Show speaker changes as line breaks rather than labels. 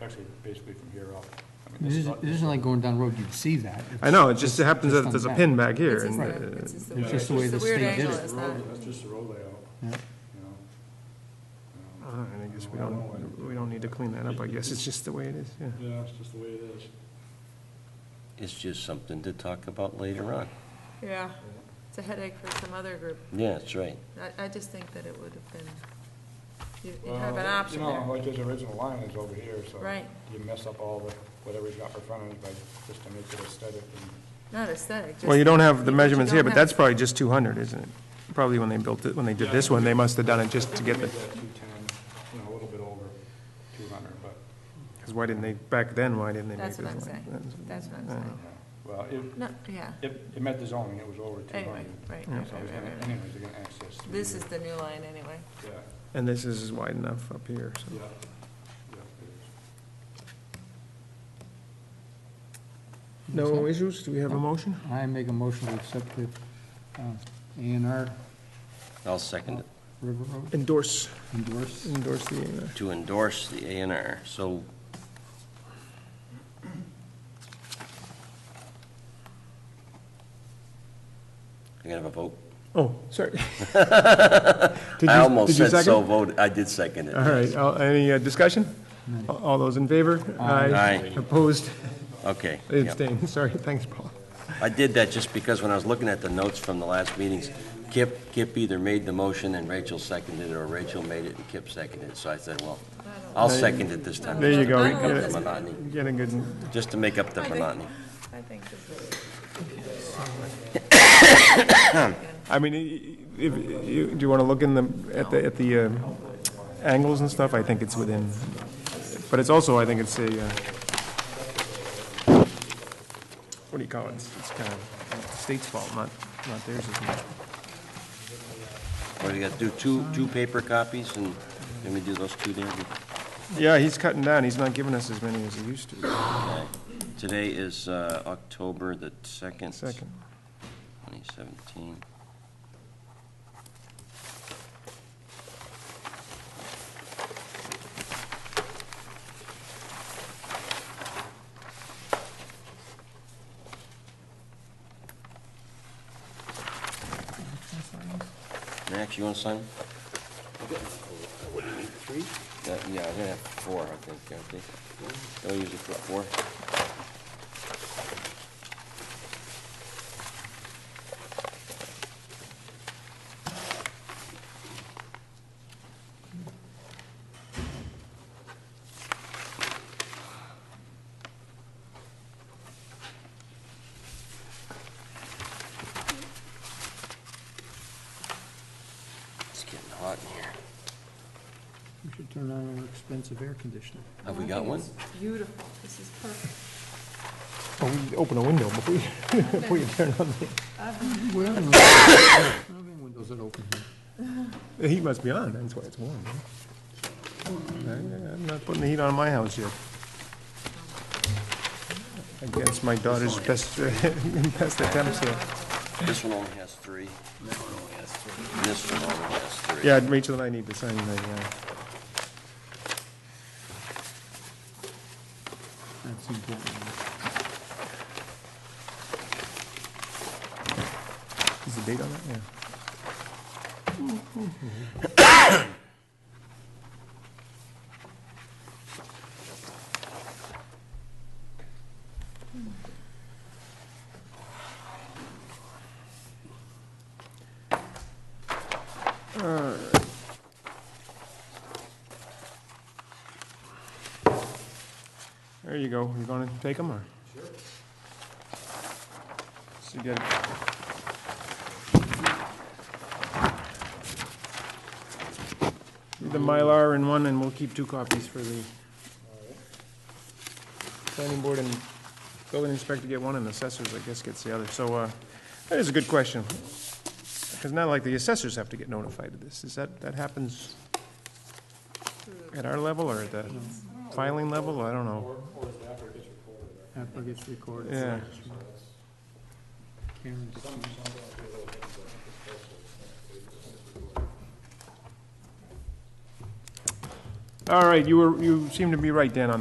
actually, basically from here up. I mean,
This
is
isn't,
not-
this isn't like going down road, you'd see that.
I know, it just happens that
on
there's a
the
pin back here.
It's just
and, uh,
the- it's just the
It's
weird-
just the way
it's
the state
weird
did
angle,
it.
is
That's road-
that?
That's just the road layout,
Yeah.
you Um, know?
all right, I guess we don't, we don't need to clean that up, I guess, it's just the way it is, yeah.
Yeah, it's just the way it is.
It's just something to talk about later on.
Yeah, it's a headache for some other group.
Yeah, that's right.
I, I just think that it would have been, you you have an option
You know,
there.
like his original line is over here, so.
Right.
You mess up all the, whatever he's got for frontage by, just to make it aesthetic and.
Not aesthetic, just.
Well, you don't have the
you
measurements here,
don't
but that's
have-
probably just 200, isn't it? Probably when they built it, when they did this one, they must have done it just to get the,
Maybe that 210, you know, a little bit over 200, but,
because why didn't they, back then, why didn't they make
That's
this one?
what I'm saying. That's what I'm saying.
yeah. well, it,
No, yeah,
it, it met the zoning, it was over 200.
anyway, right, right,
So he's
right,
gonna,
right, right.
anyways, they're gonna access. through
This
here.
is the new line anyway.
Yeah,
And this is wide enough up here, so.
yeah, yeah, it is.
No issues, do we have a motion?
I make a motion to accept the uh, A and R
I'll second it,
River Road
Endorse,
endorse.
endorse the, uh,
to endorse the A and R. So I gotta have a vote?
oh, sorry. Did you-
I almost
did you
said so
second?
voted. I did second it.
All right, uh, any uh, discussion? A- All those in favor?
Aye.
Opposed?
Okay. yeah.
Abstained, sorry, thanks, Paul.
I did that just because when I was looking at the notes from the last meetings, Kip, Kip either made the motion and Rachel seconded it, or Rachel made it and Kip seconded it. So I said, well, I'll second it this time.
There you go.
I don't know if
Just to make up the monotony-
Getting good,
Just to make up the
I think-
monotony.
I think this is.
I mean, i- if, you, do you want to look in the, at the, at the uh, angles and stuff? I think it's within, but it's also, I think it's a, uh, what do you call it? It's it's kind of the state's fault, not, not theirs as much.
What, do you got to do two, two paper copies and let me do those two there?
Yeah, he's cutting down, he's not giving us as many as he used to.
Okay. Today is uh, October the 2nd.
Second.
2017. Max, you want to sign? them? Uh, Yeah, I'm gonna have four, I think, aren't they? They'll use it for four. It's getting hot in here.
We should turn on our expensive air conditioner.
Have we got one?
Beautiful, this is perfect.
Well, Oh, we open a window before you, before you turn
We're
on
having windows- we're having windows that open here.
the, the heat must be on, that's why it's warm. huh? I- I'm not putting the heat on my house yet. Against my daughter's best, best attempts here.
This one only has three. That one only has three. This one only has three.
Yeah, Rachel and I need to sign the, uh,
That's important.
is the date on that? Yeah. There you go. You gonna take them or? Sure. So you got the Mylar in one and we'll keep two copies for the planning board and building inspector get one and assessors, I guess, gets the other. So, uh, that is a good question. Because not like the assessors have to get notified of this. Is that, that happens at our level or at the filing level? I don't know.
After it gets recorded.
Yeah.
Karen's-
All right, you were, you seem to be right, Dan, on